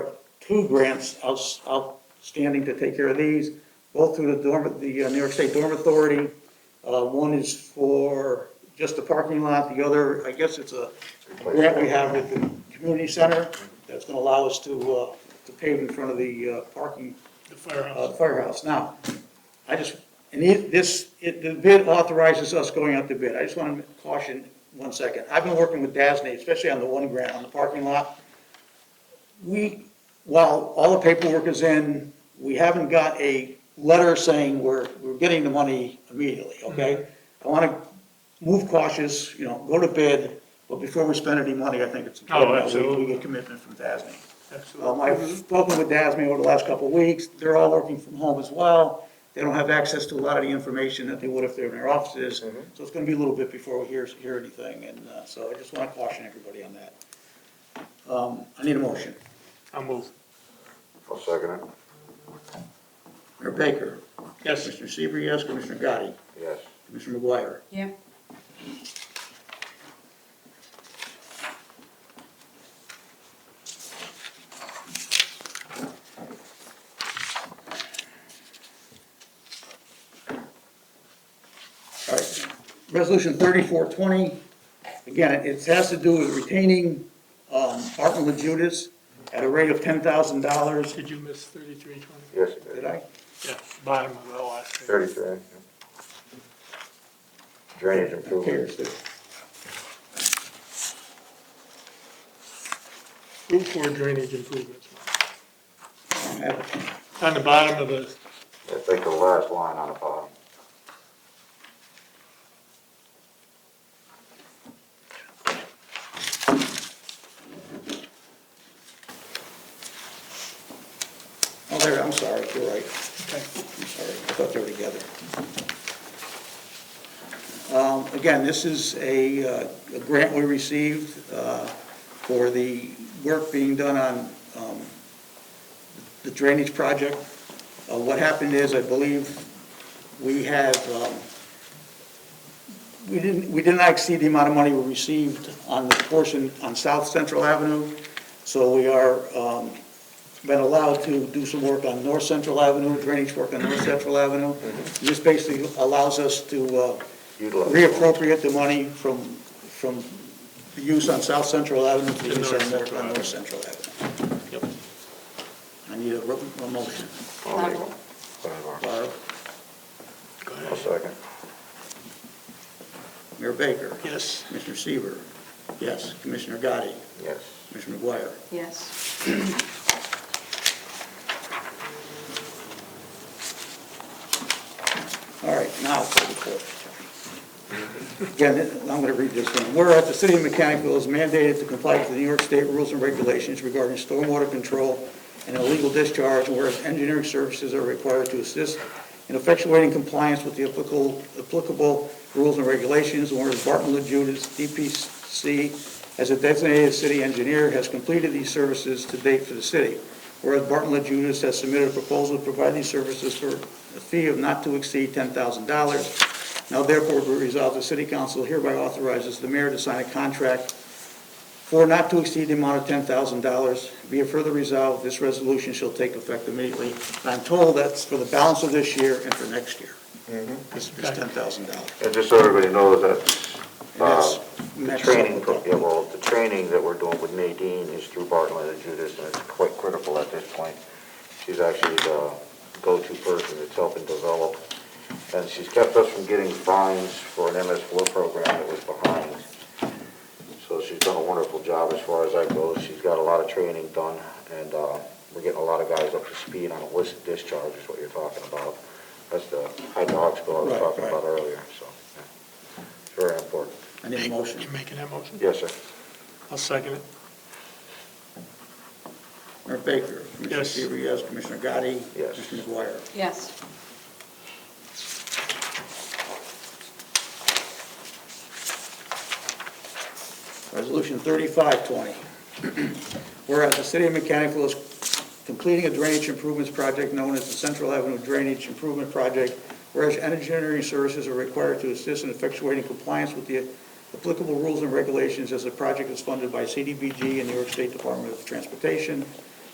two grants outs- outstanding to take care of these, both through the dorm, the uh, New York State Dorm Authority. Uh, One is for just the parking lot, the other, I guess it's a grant we have with the community center that's going to allow us to, uh, to pave in front of the uh, parking The firehouse. uh, firehouse. Now, I just, and it, this, it, the bid authorizes us going out to bid. I just want to caution one second. I've been working with DASNY, especially on the one grant, on the parking lot. We, while all the paperwork is in, we haven't got a letter saying we're, we're getting the money immediately, okay? I want to move cautious, you know, go to bid, but before we spend any money, I think it's important that we- we absolutely. get commitment from DASNY. Absolutely. Um, I've spoken with DASME over the last couple of weeks, they're all working from home as well. They don't have access to a lot of the information that they would if they're in their offices, so it's gonna be a little bit before we hear, hear anything, and, uh, so I just wanna caution everybody on that. Um, I need a motion. I'll move. I'll second it, Mayor Baker, Yes, Commissioner Seaver, yes, Commissioner Gotti, yes. Commissioner McGuire. Yeah, All right, resolution thirty-four twenty, again, it- it has to do with retaining, um, Martin LaJudas at a rate of ten thousand dollars. did you miss thirty-three twenty? Yes, it Did is. I? Yeah, bottom of the last page. Thirty-three. yeah. Drainage improvement. Here's the- Route four drainage improvements. have it. On the bottom of the, That's like the last line on the bottom. Oh, there, I'm sorry, you're right. okay, I'm sorry, I thought they were together. Um, Again, this is a, uh, a grant we received uh, for the work being done on um, the drainage project. Uh, What happened is, I believe, we have, um, we didn't, we did not exceed the amount of money we received on the portion on South Central Avenue, so we are um, been allowed to do some work on North Central Avenue, drainage work on North Central Avenue. This basically allows us to uh, Utilize. reappropriate the money from, from the use on South Central Avenue to To use North on North, Central on North Avenue. Central Avenue. yep. I need a, ro- a motion. I'll make it. level. Whatever. Barb, Go I'll ahead. second, Mayor Baker, Yes, Commissioner Seaver, yes, Commissioner Gotti, yes. Commissioner McGuire. yes. All right, now for the fourth. Again, I'm gonna read this one. Whereas the city of Mechanicsville is mandated to comply to the New York State rules and regulations regarding stormwater control and illegal discharge, and whereas engineering services are required to assist in effectuating compliance with the applicable, applicable rules and regulations, and whereas Barton LaJudas, DPC, as a designated city engineer, has completed these services to date for the city. Whereas Barton LaJudas has submitted a proposal to provide these services for a fee of not to exceed ten thousand dollars. Now therefore be resolved, the city council hereby authorizes the mayor to sign a contract for not to exceed the amount of ten thousand dollars. Be it further resolved, this resolution shall take effect immediately. I'm told that's for the balance of this year and for next year. This is ten thousand dollars. And just so everybody knows, that's, And that's uh, the matched up training, with pro- that. yeah, well, the training that we're doing with Nadine is through Bartlett and Judas, and it's quite critical at this point. She's actually the go-to person that's helping develop, and she's kept us from getting fines for an MS four program that was behind. So she's done a wonderful job as far as that goes. She's got a lot of training done, and uh, we're getting a lot of guys up to speed on illicit discharge is what you're talking about. That's the hydraulics bill I was Right, talking right. about earlier, so, yeah. It's very important. I need a motion. you making that motion? Yes, sir. I'll second it. Mayor Baker. Commissioner Yes. Seaver, yes. Commissioner Gotti. Yes. Commissioner McGuire. Yes, Resolution thirty-five twenty. Whereas the city of Mechanicsville is completing a drainage improvements project known as the Central Avenue Drainage Improvement Project, whereas engineering services are required to assist in effectuating compliance with the applicable rules and regulations as the project is funded by CDBG and New York State Department of Transportation,